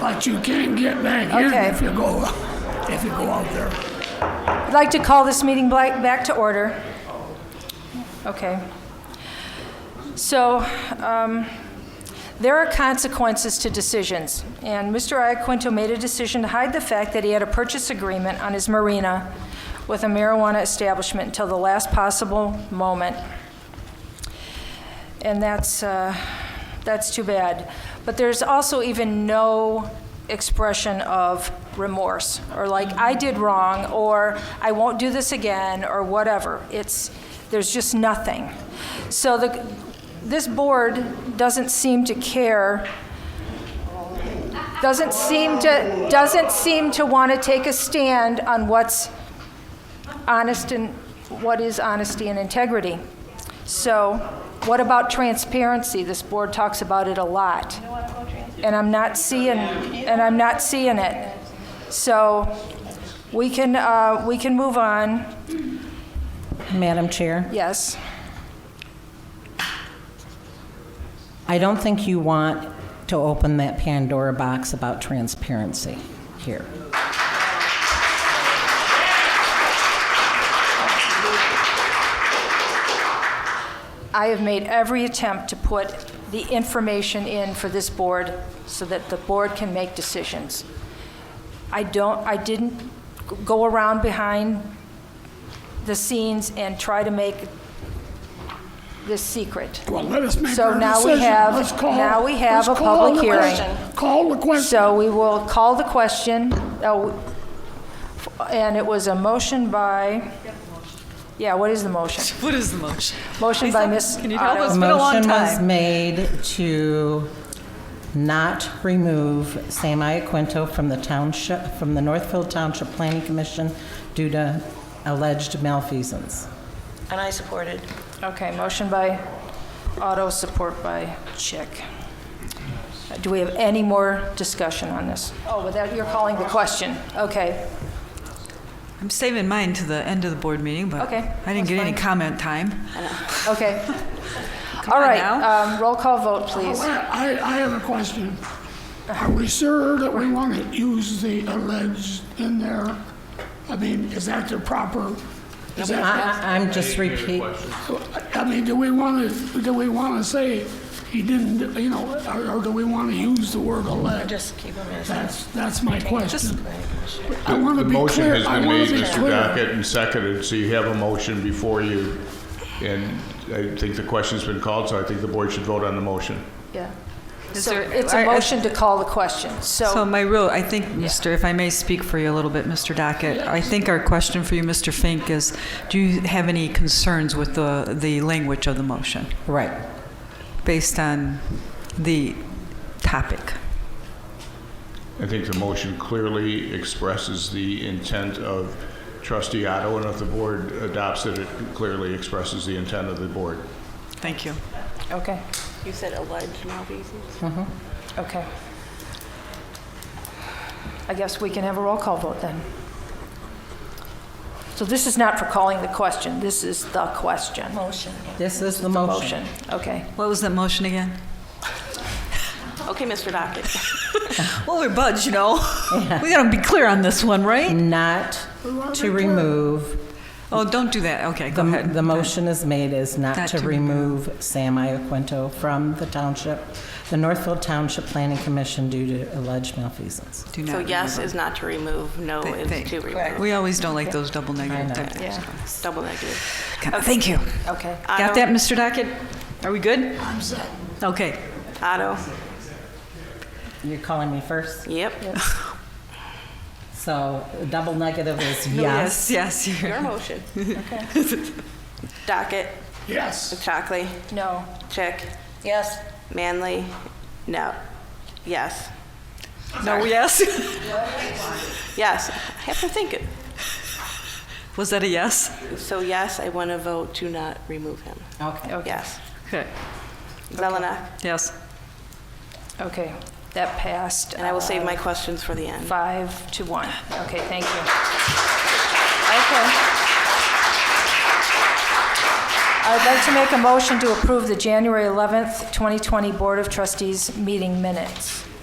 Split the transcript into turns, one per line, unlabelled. But you can't get back in
Okay.
if you go, if you go out there.
I'd like to call this meeting bla- back to order. Okay. So, um, there are consequences to decisions, and Mr. Iaquinto made a decision to hide the fact that he had a purchase agreement on his marina with a marijuana establishment until the last possible moment. And that's, uh, that's too bad. But there's also even no expression of remorse, or like, I did wrong, or I won't do this again, or whatever. It's, there's just nothing. So the, this board doesn't seem to care, doesn't seem to, doesn't seem to want to take a stand on what's honest and what is honesty and integrity. So, what about transparency? This board talks about it a lot. And I'm not seeing, and I'm not seeing it. So, we can, uh, we can move on,
Madam Chair,
yes.
I don't think you want to open that Pandora box about transparency here.
I have made every attempt to put the information in for this board so that the board can make decisions. I don't, I didn't go around behind the scenes and try to make this secret.
Well, let us make
So
our
now we
decision.
have-
Let's call-
now we have
let's
a
call
public
the
hearing.
question. Call the question.
So we will call the question, Oh, and it was a motion by, yeah, what is the motion?
What is the motion?
Motion by Ms.
Can you help
Otto.
us? It's been a long
Motion was
time.
made to not remove Sam Iaquinto from the township, from the Northfield Township Planning Commission due to alleged malfeasance.
And I supported.
Okay, motion by Otto, support by Chick. Do we have any more discussion on this? Oh, without, you're calling the question. Okay,
I'm saving mine to the end of the board meeting, but
Okay,
I
that's
didn't get any
fine.
comment time.
okay.
on
All right,
now. Oh,
um, roll call vote, please.
I, I have a question. Are we sure that we want to use the alleged in there? I mean, is that the proper? Is
I-
that,
I- I'm just repeat,
I mean, do we want to, do we want to say he didn't, you know, or, or do we want to use the word alleged?
Just keep them in.
That's, that's my
Just-
question. I want to
The
be
motion
clear.
has
I
been
wanna
made,
be
Mr.
clear.
Dockett, and seconded, so you have a motion before you. And I think the question's been called, so I think the board should vote on the motion.
Yeah.
Is
So
there-
it's a
I- I-
motion to call the question,
So my real, I think, Mr., if I may speak for you a little bit, Mr. Dockett, I think our question for you, Mr. Fink, is do you have any concerns with the, the language of the motion
right.
based on the topic?
I think the motion clearly expresses the intent of trustee Otto, and if the board adopts it, it clearly expresses the intent of the board.
Thank you.
Okay,
You said alleged malfeasance?
okay. I guess we can have a roll call vote then. So this is not for calling the question, this is the question. Motion.
This is the motion.
Motion, okay.
What was that motion again?
Okay, Mr. Dockett.
Well, we're buds, you know. We gotta be clear on this one, right?
Not to remove
Oh, don't do that. Okay, go
The,
ahead.
the motion is made is not
Not
to
to
remove Sam Iaquinto from the township, the Northfield Township Planning Commission due to alleged malfeasance.
Do
So
not
yes is not to remove, no
remove. Thank-
is to remove.
We always don't like those double negative type things.
Double negative.
Okay, Thank you.
Okay.
Got that, Mr. Dockett? Are we good? I'm set. Okay.
Otto,
You're calling me first?
yep.
So double negative is yes.
Yes, yes.
Your
you're-
motion. Dockett,
Yes.
Chockley,
No.
Chick. Yes. Manley, no. Yes.
No, yes.
Yes. I have to think it.
Was that a yes?
So yes, I want to vote to not remove him.
Okay.
Yes.
Okay.
Zelenak,
Yes.
Okay, that passed.
and I will save
uh,
my questions for the end.
Five to one. Okay, thank you. Okay. I'd like to make a motion to approve the January 11th, 2020 Board of Trustees meeting minutes.